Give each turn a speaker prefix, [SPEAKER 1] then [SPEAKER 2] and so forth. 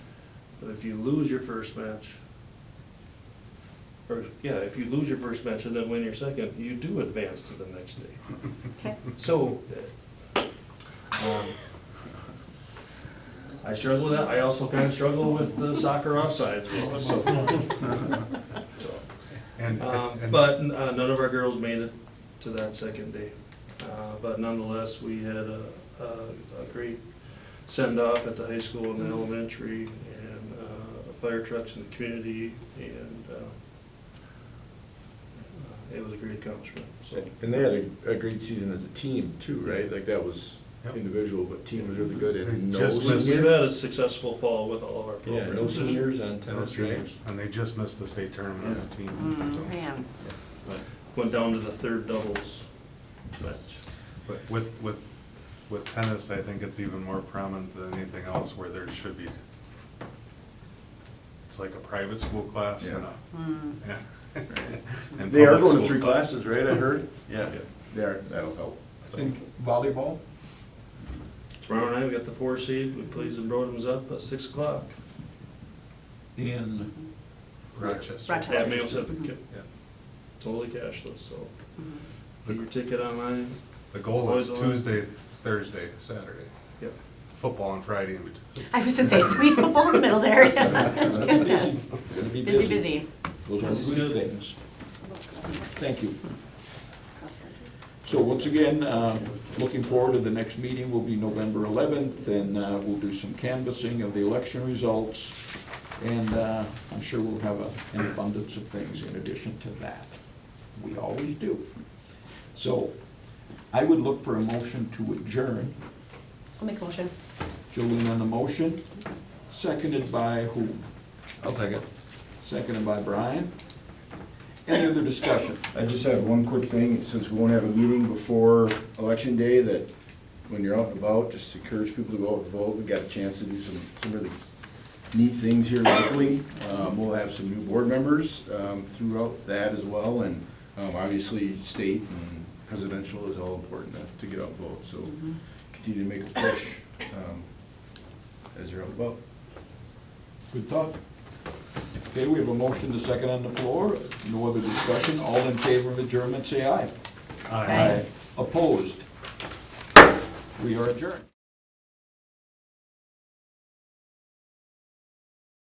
[SPEAKER 1] if you lose your first match, or, yeah, if you lose your first match and then win your second, you do advance to the next day.
[SPEAKER 2] Okay.
[SPEAKER 1] So, um, I struggle with that, I also kind of struggle with the soccer offsides, as well, so. So,
[SPEAKER 3] And,
[SPEAKER 1] um,
[SPEAKER 3] and-
[SPEAKER 1] But uh, none of our girls made it to that second day. Uh, But nonetheless, we had a, a a great send-off at the high school and the
[SPEAKER 4] Mm-hmm.
[SPEAKER 1] elementary, and uh, fire trucks in the community, and uh, uh, it was a great accomplishment, so.
[SPEAKER 4] And they had a, a great season as a team too, right? Like that was
[SPEAKER 3] Yep.
[SPEAKER 4] individual, but team was really good
[SPEAKER 3] They
[SPEAKER 4] and no
[SPEAKER 3] just missed-
[SPEAKER 1] We've
[SPEAKER 4] seniors.
[SPEAKER 1] had a successful fall with all of our
[SPEAKER 4] Yeah, no
[SPEAKER 1] programs.
[SPEAKER 4] seniors on tennis, right?
[SPEAKER 3] And they just missed the state tournament as a team. so.
[SPEAKER 2] Mm, man.
[SPEAKER 3] But-
[SPEAKER 1] Went down to the third doubles match.
[SPEAKER 3] But with, with, with tennis, I think it's even more prominent than anything else where there should be, it's like a private school class and a.
[SPEAKER 2] Mm.
[SPEAKER 3] and
[SPEAKER 4] They are
[SPEAKER 3] public
[SPEAKER 4] going to
[SPEAKER 3] school
[SPEAKER 4] three
[SPEAKER 3] class.
[SPEAKER 4] classes, right? I heard. Yeah, they are, that'll help.
[SPEAKER 5] And volleyball?
[SPEAKER 1] Tomorrow night, we got the four seed, we plays the Broadens up at six o'clock.
[SPEAKER 5] In
[SPEAKER 3] Rochester.
[SPEAKER 2] Rochester.
[SPEAKER 1] At Mayo Civic,
[SPEAKER 2] Mhm.
[SPEAKER 1] yep.
[SPEAKER 3] Yeah.
[SPEAKER 1] totally cashless, so
[SPEAKER 2] Mhm.
[SPEAKER 1] get your ticket online.
[SPEAKER 3] The goal is
[SPEAKER 1] Boys only.
[SPEAKER 3] Tuesday, Thursday, Saturday,
[SPEAKER 1] Yep.
[SPEAKER 3] football on Friday in between.
[SPEAKER 2] I was gonna say, squeeze football in the middle there. Goodness. Busy, busy.
[SPEAKER 6] Those
[SPEAKER 1] This is
[SPEAKER 6] are good
[SPEAKER 1] good.
[SPEAKER 6] things. Thank you. So once again, uh, looking forward to the next meeting will be November 11th, and uh, we'll do some canvassing of the election results, and uh, I'm sure we'll have a- an abundance of things in addition to that. We always do. So I would look for a motion to adjourn.
[SPEAKER 2] I'll make a motion.
[SPEAKER 6] Jolene on the motion, seconded by who?
[SPEAKER 3] I'll second.
[SPEAKER 6] Seconded by Brian. Any other discussion?
[SPEAKER 4] I just have one quick thing, since we won't have a meeting before election day, that when you're out and about, just encourage people to go out and vote. We got a chance to do some, some really neat things here locally. Um, we'll have some new board members, um, throughout that as well, and, um, obviously, state and presidential is all important to get out and vote, so continue to make a push, um, as you're out and about.
[SPEAKER 6] Good thought. Okay, we have a motion, the second on the floor, no other discussion, all in favor of adjournment, say aye.
[SPEAKER 2] Aye.
[SPEAKER 6] Opposed? We are adjourned.